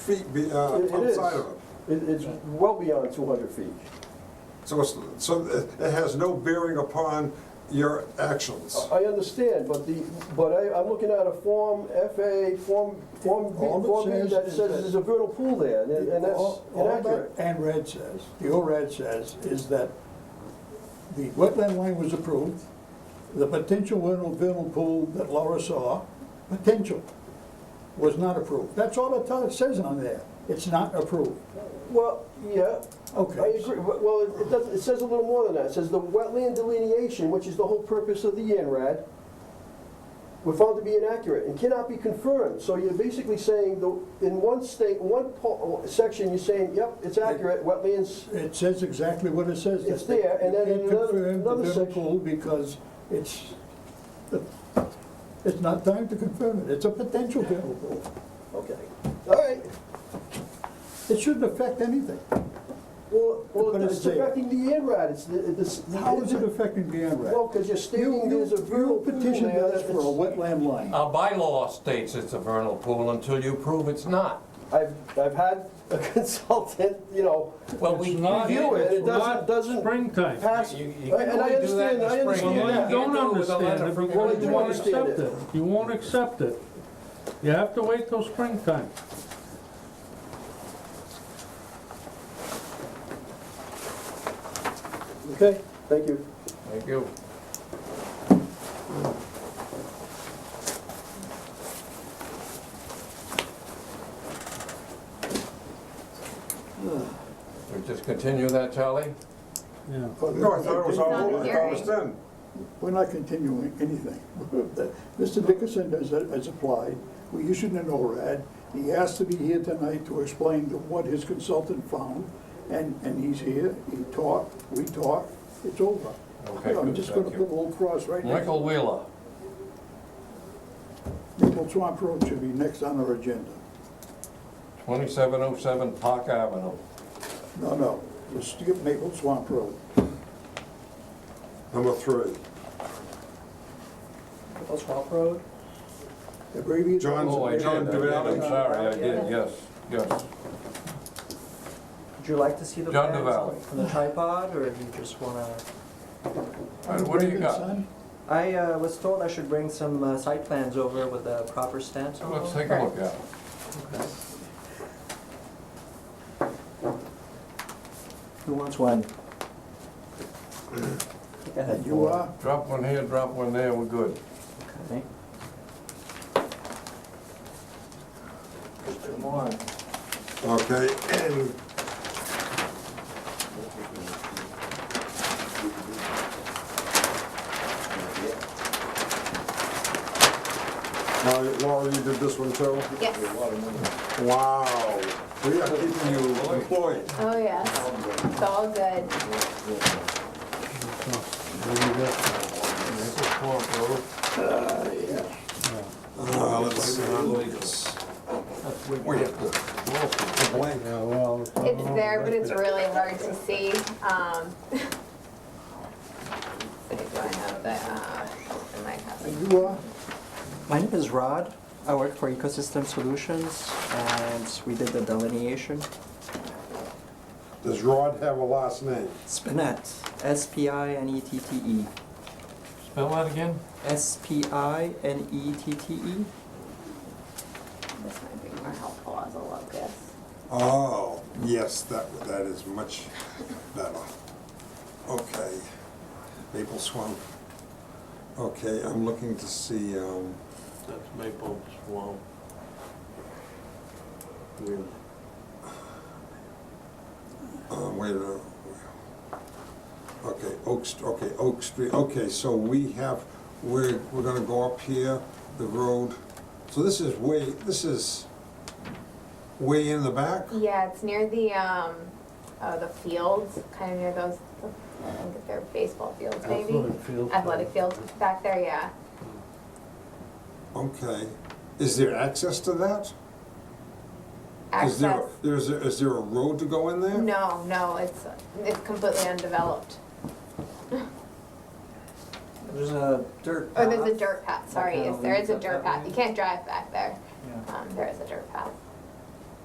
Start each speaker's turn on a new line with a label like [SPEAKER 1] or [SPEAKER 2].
[SPEAKER 1] feet be, uh,
[SPEAKER 2] It- it is.
[SPEAKER 1] outside of it.
[SPEAKER 2] It, it's well beyond 200 feet.
[SPEAKER 1] So it's, so it it has no bearing upon your actions.
[SPEAKER 2] I understand, but the, but I, I'm looking at a Form FA, Form, Form B,
[SPEAKER 3] All it
[SPEAKER 2] Form B
[SPEAKER 3] says
[SPEAKER 2] that
[SPEAKER 3] is
[SPEAKER 2] says
[SPEAKER 3] that-
[SPEAKER 2] there's a vernal pool there, and and that's
[SPEAKER 3] All- all that
[SPEAKER 2] inaccurate.
[SPEAKER 3] ANRAD says, the ORAD says, is that the wetland line was approved, the potential vernal, vernal pool that Laura saw, potential, was not approved. That's all it tell- it says on there. It's not approved.
[SPEAKER 2] Well, yeah, I
[SPEAKER 3] Okay.
[SPEAKER 2] agree, but- well, it- it does, it says a little more than that. It says the wetland delineation, which is the whole purpose of the INRAD, were found to be inaccurate and cannot be confirmed. So you're basically saying, the in one state, in one po- section, you're saying, yep, it's accurate, wetlands
[SPEAKER 3] It says exactly what it says.
[SPEAKER 2] It's
[SPEAKER 3] that they-
[SPEAKER 2] there, and then
[SPEAKER 3] you can't
[SPEAKER 2] in another-
[SPEAKER 3] confirm the
[SPEAKER 2] another
[SPEAKER 3] vernal
[SPEAKER 2] section-
[SPEAKER 3] pool Because it's, it's not time to confirm it. It's a potential vernal pool.
[SPEAKER 2] Okay, all right.
[SPEAKER 3] It shouldn't affect anything.
[SPEAKER 2] Well,
[SPEAKER 3] But
[SPEAKER 2] well,
[SPEAKER 3] it's
[SPEAKER 2] it's
[SPEAKER 3] there.
[SPEAKER 2] affecting the INRAD, it's, the- it's. the-
[SPEAKER 3] How is it affecting the ANRAD?
[SPEAKER 2] Well, because you're stating
[SPEAKER 3] You- you-
[SPEAKER 2] there's a vernal
[SPEAKER 3] You
[SPEAKER 2] pool
[SPEAKER 3] petitioned
[SPEAKER 2] there
[SPEAKER 3] us for a
[SPEAKER 2] that's.
[SPEAKER 3] wetland
[SPEAKER 1] Uh,
[SPEAKER 3] line.
[SPEAKER 4] Our bylaw states it's a vernal pool until you prove it's not.
[SPEAKER 2] I've, I've had a consultant, you know,
[SPEAKER 4] Well, we
[SPEAKER 5] It's not-
[SPEAKER 2] review it, it
[SPEAKER 5] it's
[SPEAKER 2] doesn't,
[SPEAKER 5] not
[SPEAKER 2] doesn't
[SPEAKER 5] Springtime.
[SPEAKER 2] pass.
[SPEAKER 4] You- you can
[SPEAKER 2] And I
[SPEAKER 4] only do that
[SPEAKER 2] understand,
[SPEAKER 4] in the
[SPEAKER 2] I
[SPEAKER 4] spring.
[SPEAKER 2] understand
[SPEAKER 5] Well,
[SPEAKER 4] Yeah.
[SPEAKER 5] you
[SPEAKER 2] that.
[SPEAKER 5] don't
[SPEAKER 4] Handle it with a letter
[SPEAKER 5] understand it
[SPEAKER 4] from-
[SPEAKER 5] because
[SPEAKER 2] Well,
[SPEAKER 5] you
[SPEAKER 2] you
[SPEAKER 5] won't
[SPEAKER 2] understand
[SPEAKER 5] accept
[SPEAKER 2] it.
[SPEAKER 5] it. You won't accept it. You have to wait till springtime.
[SPEAKER 2] Okay, thank you.
[SPEAKER 4] Thank you. We just continue that, Charlie?
[SPEAKER 5] Yeah.
[SPEAKER 1] No, I thought it was all, I thought it was
[SPEAKER 6] Not
[SPEAKER 1] done.
[SPEAKER 3] We're not continuing anything. Mr. Dickerson has, has applied, we issued an ORAD, he asked to be here tonight to explain to what his consultant found, and, and he's here, he talked, we talked, it's over.
[SPEAKER 4] Okay,
[SPEAKER 3] I'm
[SPEAKER 4] good,
[SPEAKER 3] just gonna
[SPEAKER 4] thank
[SPEAKER 3] put
[SPEAKER 4] you.
[SPEAKER 3] a little cross right next
[SPEAKER 4] Michael Wheeler.
[SPEAKER 3] Maple Swamp Road should be next on our agenda.
[SPEAKER 4] 2707 Park Avenue.
[SPEAKER 3] No, no, let's skip Maple Swamp Road.
[SPEAKER 1] Number three,
[SPEAKER 2] Swamp Road?
[SPEAKER 3] Abbreviate-
[SPEAKER 1] John-
[SPEAKER 4] Oh, I did, I
[SPEAKER 1] John
[SPEAKER 4] did,
[SPEAKER 1] Duvalli.
[SPEAKER 4] I'm sorry, I did, yes, yes.
[SPEAKER 7] Would you like to see the
[SPEAKER 4] John
[SPEAKER 7] plans
[SPEAKER 4] DeValley.
[SPEAKER 7] from the tripod, or do you just wanna?
[SPEAKER 4] All right, What do you got?
[SPEAKER 3] Son?
[SPEAKER 7] I uh, was told I should bring some uh, site plans over with the proper stamps.
[SPEAKER 4] So
[SPEAKER 7] on
[SPEAKER 4] Let's
[SPEAKER 7] them.
[SPEAKER 4] take a look at it.
[SPEAKER 7] Who wants one?
[SPEAKER 3] And you are?
[SPEAKER 4] Drop one here, drop one there, we're good.
[SPEAKER 7] Okay. Come on.
[SPEAKER 1] okay, and now, Laura, you did this one too?
[SPEAKER 6] Yes.
[SPEAKER 1] Wow, we are keeping you employed.
[SPEAKER 6] Oh, yes. It's all good.
[SPEAKER 4] Maple Swamp Road.
[SPEAKER 1] Uh, let's see, we have to, to blank.
[SPEAKER 5] Yeah, well.
[SPEAKER 6] It's there, but it's really hard to see. Um, so do I have the, uh, in my copy?
[SPEAKER 3] And you are?
[SPEAKER 7] My name is Rod. I work for Ecosystem Solutions, and we did the delineation.
[SPEAKER 1] Does Rod have a last name?
[SPEAKER 7] Spinet, E S-P-I-N-E-T-T-E.
[SPEAKER 4] Spell that again?
[SPEAKER 7] E S-P-I-N-E-T-T-E.
[SPEAKER 6] This might be more helpful as a locus.
[SPEAKER 1] Oh, yes, that, that is much better. Okay, Maple Swamp. Okay, I'm looking to see, um,
[SPEAKER 8] That's Maple Swamp. Really?
[SPEAKER 1] uh, wait a minute. Okay, Oak, St- okay, Oak Street, okay, so we have, we're, we're gonna go up here, the road. So this is way, this is way in the back?
[SPEAKER 6] Yeah, it's near the, um, uh, the fields, kind of near those, I think they're baseball fields, maybe?
[SPEAKER 5] Athletic field.
[SPEAKER 6] Athletic fields back there, yeah.
[SPEAKER 1] Okay, is there access to that? Is there,
[SPEAKER 6] Access.
[SPEAKER 1] there's, a- is there a road to go in there?
[SPEAKER 6] No, no, it's, it's completely undeveloped.
[SPEAKER 7] There's a dirt
[SPEAKER 6] Oh, there's a
[SPEAKER 7] path.
[SPEAKER 6] dirt path, sorry,
[SPEAKER 7] Okay,
[SPEAKER 6] yes,
[SPEAKER 7] I'll
[SPEAKER 6] there
[SPEAKER 7] leave
[SPEAKER 6] is a
[SPEAKER 7] that
[SPEAKER 6] dirt
[SPEAKER 7] that
[SPEAKER 6] path,
[SPEAKER 7] way.
[SPEAKER 6] you can't drive back there,
[SPEAKER 7] Yeah.
[SPEAKER 6] um, there is a dirt path.